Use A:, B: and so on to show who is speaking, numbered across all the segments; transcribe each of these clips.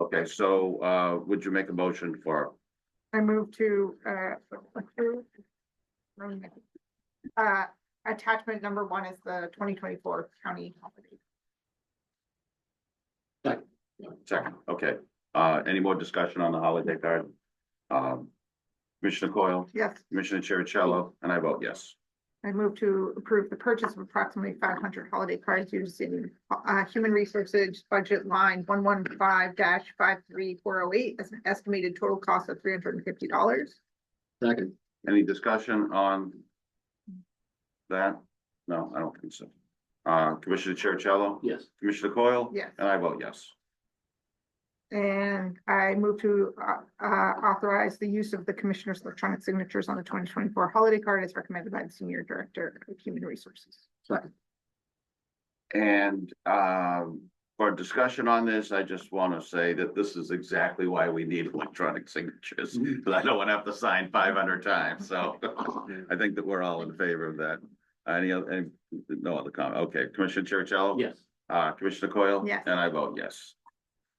A: Okay, so, uh, would you make a motion for,
B: I move to, uh, approve. um, Uh, attachment number one is the twenty twenty-four county holiday.
A: second, okay, uh, any more discussion on the holiday card? Um, Commissioner Coyle,
B: Yes,
A: Commissioner Cherichello, and I vote yes.
B: I move to approve the purchase of approximately five hundred holiday cards using, uh, human resources budget line one one five five three four oh eight as an estimated total cost of three hundred and fifty dollars.
C: Second,
A: Any discussion on that? No, I don't think so. Uh, Commissioner Cherichello,
C: yes,
A: Commissioner Coyle?
B: Yes.
A: And I vote yes.
B: And I move to uh, uh, authorize the use of the commissioner's electronic signatures on the twenty twenty-four holiday card as recommended by the senior director of human resources.
A: And um, for discussion on this, I just want to say that this is exactly why we need electronic signatures. Because I don't want to have to sign five hundred times, so I think that we're all in favor of that. Any other, any, no other comment? Okay, Commissioner Chercello?
C: yes,
A: Uh, Commissioner Coyle?
B: Yes.
A: And I vote yes.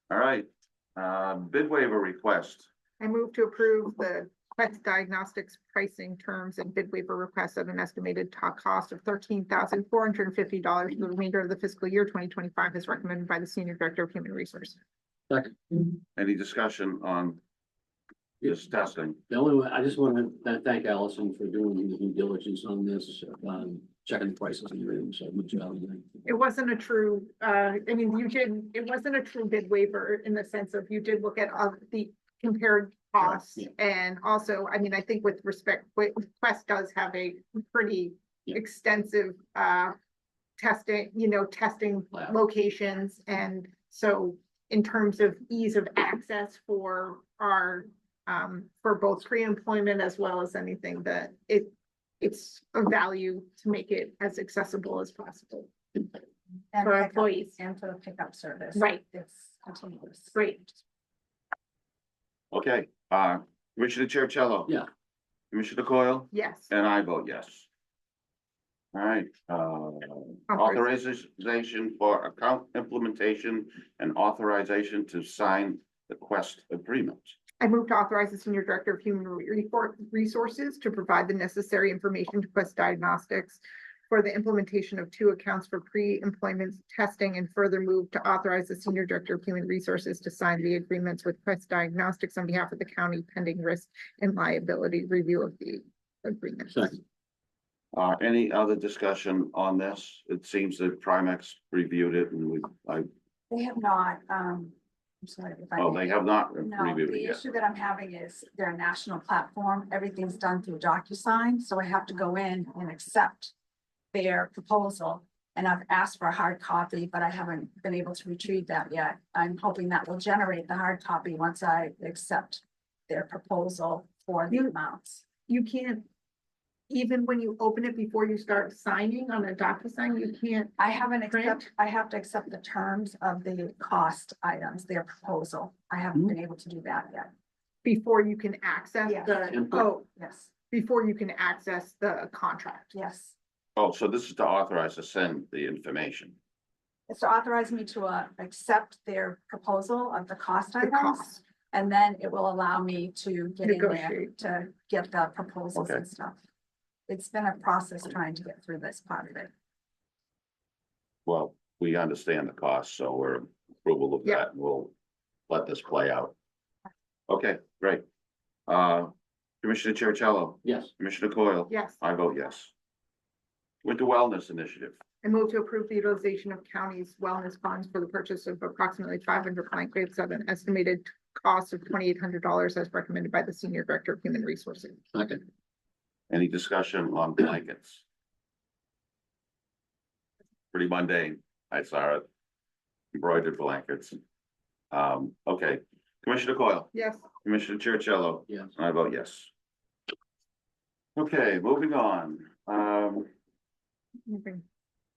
A: All right, uh, bid waiver request.
B: I move to approve the Quest Diagnostics pricing terms and bid waiver request at an estimated top cost of thirteen thousand four hundred and fifty dollars for the remainder of the fiscal year twenty twenty-five as recommended by the senior director of human resources.
C: second.
A: Any discussion on this testing?
C: The only one, I just want to thank Allison for doing the due diligence on this, um, checking the prices and everything, so good job.
B: It wasn't a true, uh, I mean, you did, it wasn't a true bid waiver in the sense of you did look at all the compared costs.
C: yeah.
B: And also, I mean, I think with respect, Qu- Quest does have a pretty
C: Yeah.
B: extensive, uh, testing, you know, testing
C: Lab.
B: locations. And so in terms of ease of access for our, um, for both pre-employment as well as anything that it, it's a value to make it as accessible as possible.
D: And
B: for
D: pickup-
B: employees.
D: And for the pickup service.
B: Right.
D: It's continuous.
B: Great.
A: Okay, uh, Commissioner Chercello?
C: Yeah.
A: Commissioner Coyle?
B: Yes,
A: And I vote yes. All right, uh, authorization for account implementation and authorization to sign the Quest agreement.
B: I move to authorize the senior director of human Re- Refor- resources to provide the necessary information to Quest Diagnostics for the implementation of two accounts for pre-employment testing and further move to authorize the senior director of human resources to sign the agreements with Quest Diagnostics on behalf of the county pending risk and liability review of the agreement.
C: Second,
A: Uh, any other discussion on this? It seems that Primex reviewed it and we, I,
D: They have not, um, I'm sorry if I.
A: oh, they have not
D: No,
A: reviewed it
D: the
A: yet.
D: issue that I'm having is their national platform, everything's done through DocuSign, so I have to go in and accept their proposal. And I've asked for a hard copy, but I haven't been able to retrieve that yet. I'm hoping that will generate the hard copy once I accept their proposal for the
B: You-
D: amounts.
B: You can't, even when you open it before you start signing on a DocuSign, you can't
D: I haven't
B: Grant?
D: accept, I have to accept the terms of the cost items, their proposal. I
B: Hmm.
D: haven't been able to do that yet.
B: before you can access
D: Yeah.
B: the,
C: Input.
B: oh,
D: Yes,
B: before you can access the contract.
D: yes.
A: Oh, so this is to authorize to send the information.
D: It's to authorize me to uh accept their proposal of the cost
B: The
D: items.
B: cost,
D: And then it will allow me to get in there
B: Negotiate.
D: to get the proposals
A: Okay.
D: and stuff. It's been a process trying to get through this part of it.
A: Well, we understand the cost, so we're approval of
B: Yeah.
A: that, and we'll let this play out. Okay, great. Uh, Commissioner Chercello,
C: yes,
A: Commissioner Coyle?
B: yes.
A: I vote yes. With the Wellness Initiative,
B: I move to approve the utilization of county's wellness funds for the purchase of approximately five hundred blank grapes at an estimated cost of twenty-eight hundred dollars as recommended by the senior director of human resources.
C: second,
A: any discussion on blankets? Pretty mundane, I saw it. Embroidered blankets. Um, okay, Commissioner Coyle?
B: Yes,
A: Commissioner Chercello?
C: yes.
A: I vote yes. Okay, moving on. Um,
B: moving.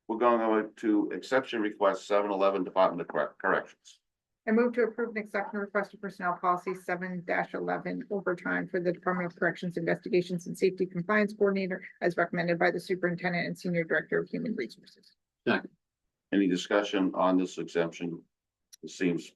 A: we're going over to exception request seven eleven Department of Correc- Corrections.
B: I move to approve an exception request to personnel policy seven eleven overtime for the Department of Corrections Investigations and Safety Compliance Coordinator as recommended by the superintendent and senior director of human resources.
A: Any discussion on this exemption? It seems